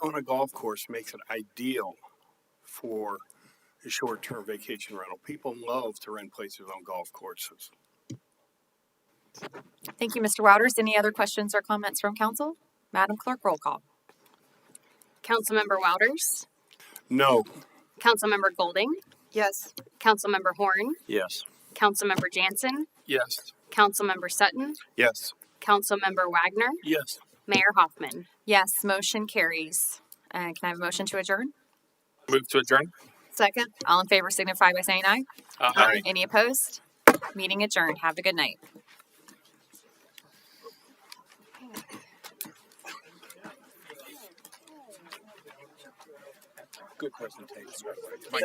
a golf course makes it ideal for a short-term vacation rental. People love to rent places on golf courses. Thank you, Mr. Wouters. Any other questions or comments from council? Madam Clerk, roll call. Councilmember Wouters, No, Councilmember Golding, Yes. Councilmember Horn, Yes. Councilmember Jansen, Yes. Councilmember Sutton, yes, Councilmember Wagner, Yes. Mayor Hoffman. Yes, motion carries. Uh, can I have a motion to adjourn? Move to adjourn. Second? All in favor signify by saying aye. Aye. Any opposed? Meeting adjourned. Have a good night. good presentation.